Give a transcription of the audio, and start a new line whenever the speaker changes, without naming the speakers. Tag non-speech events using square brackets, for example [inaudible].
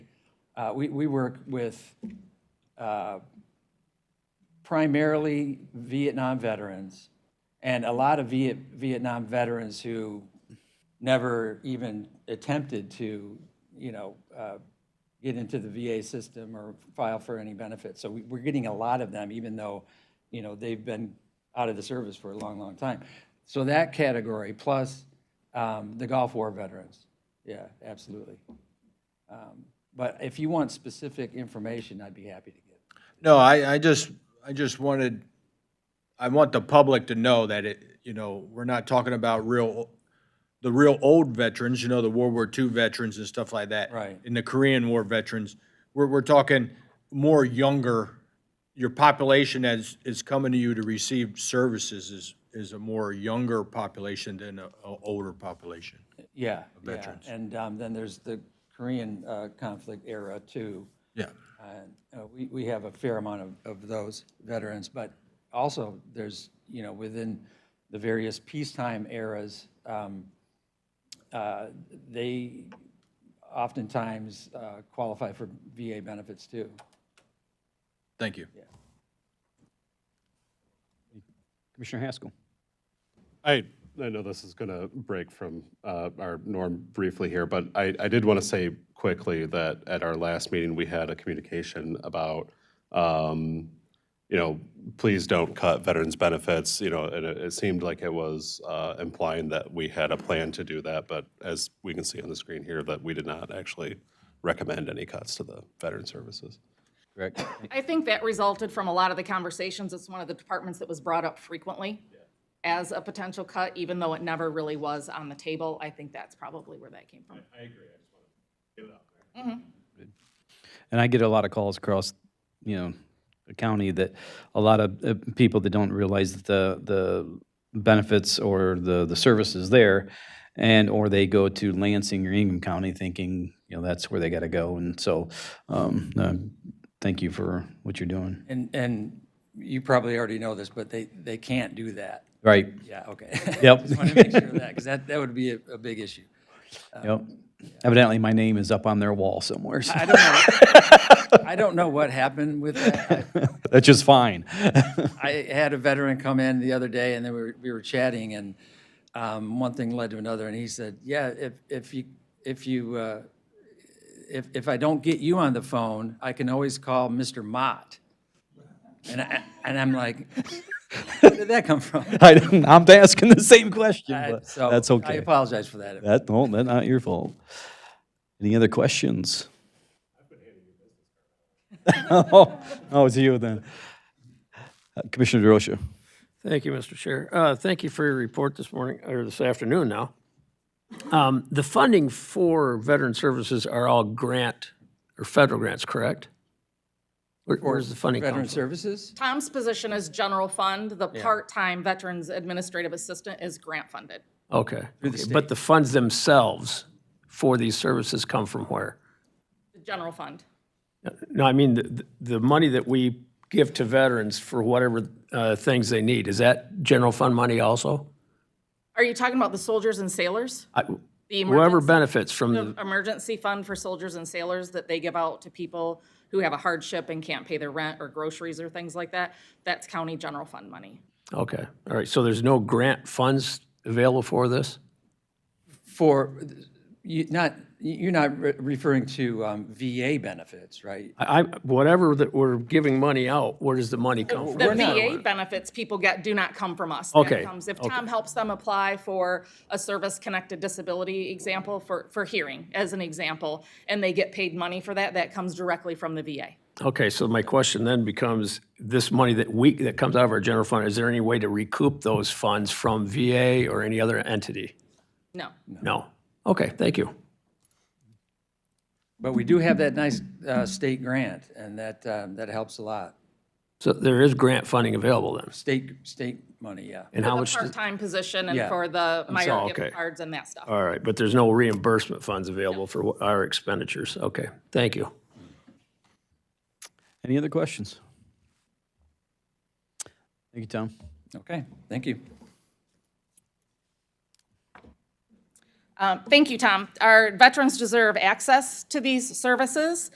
Uh, We, we work with uh, primarily Vietnam veterans and a lot of Viet, Vietnam veterans who never even attempted to, you know, uh, get into the VA system or file for any benefits. So we, we're getting a lot of them, even though, you know, they've been out of the service for a long, long time. So that category, plus um, the Gulf War veterans. Yeah, absolutely. Um, But if you want specific information, I'd be happy to give. it.
No, I, I just, I just wanted, I want the public to know that it, you know, we're not talking about real, the real old veterans, you know, the World War II veterans and stuff like that.
Right.
And the Korean War veterans. We're, we're talking more younger, your population that's, is coming to you to receive services is, is a more younger population than a, a older population.
Yeah, yeah.
veterans.
And um, then there's the Korean uh, conflict era too.
Yeah.
And, uh, We, we have a fair amount of, of those veterans, but also there's, you know, within the various peacetime eras, um, uh, they oftentimes uh, qualify for VA benefits too.
Thank you.
Commissioner Haskell.
I, I know this is going to break from uh, our norm briefly here, but I, I did want to say quickly that at our last meeting, we had a communication about, um, you know, please don't cut veterans' benefits, you know, and it, it seemed like it was uh, implying that we had a plan to do that, but as we can see on the screen here, that we did not actually recommend any cuts to the veteran services.
Correct.
I think that resulted from a lot of the conversations. It's one of the departments that was brought up frequently as a potential cut, even though it never really was on the table. I think that's probably where that came from.
And I get a lot of calls across, you know, the county that a lot of uh, people that don't realize that the, the benefits or the, the services there. And, or they go to Lansing or Ingham County thinking, you know, that's where they gotta go. And so, um, uh, thank you for what you're doing.
And, and you probably already know this, but they, they can't do that.
Right,
Yeah, [laughs] okay.
Yep.
Just want to make sure of that, because that, that would be a, a big issue.
yep. Evidently, my name is up on their wall
[laughs]
somewhere, so
I don't know, I don't know what happened with that. I-
that's just fine.
I had a veteran come in the other day, and then we were, we were chatting, and um, one thing led to another, and he said, yeah, if, if you, if you, uh, if, if I don't get you on the phone, I can always call Mr. Mott. And I, and I'm like, where did that come
[laughs]
from?
I, don't- I'm asking the same question,
I-
but
Uh, so
that's
I
okay.
apologize for that.
That, no, that's not your fault. Any other questions? [laughs] Oh, oh, it's you then. Uh, Commissioner DeRosa.
Thank you, Mr. Chair. Uh, Thank you for your report this morning, or this afternoon now. Um, The funding for veteran services are all grant or federal grants, correct? Where- Where's the funding come
Veteran
from?
Services?
Tom's position is general fund. The part-time Veterans Administrative Assistant is grant funded.
Okay. okay. But the funds themselves for these services come from where?
The general fund.
No, I mean, the- the money that we give to veterans for whatever uh, things they need, is that general fund money also?
Are you talking about the soldiers and sailors?
I-
The
Whoever
emergency,
benefits from the
the emergency fund for soldiers and sailors that they give out to people who have a hardship and can't pay their rent or groceries or things like that? That's county general fund money.
Okay, all right, so there's no grant funds available for this?
For, you not, you're not re- referring to um, VA benefits, right?
I, I- whatever that we're giving money out, where does the money come from?
The VA benefits people get do not come from us. That
Okay,
comes- If Tom helps them apply for a service-connected disability example, for, for hearing, as an example, and they get paid money for that, that comes directly from the VA.
Okay, so my question then becomes, this money that we, that comes out of our general fund, is there any way to recoup those funds from VA or any other entity?
No.
No? Okay, thank you.
But we do have that nice uh, state grant, and that, um, that helps a lot.
So there is grant funding available then?
State, state money, yeah.
And how
The
much, does-
part-time position and
Yeah.
for the Meyer
sorry,
gift
okay.
cards and that stuff.
all right, but there's no reimbursement funds available for what- our expenditures? Okay, thank you.
Any other questions? Thank you, Tom.
Okay, thank you.
Um, Thank you, Tom. Our veterans deserve access to these services.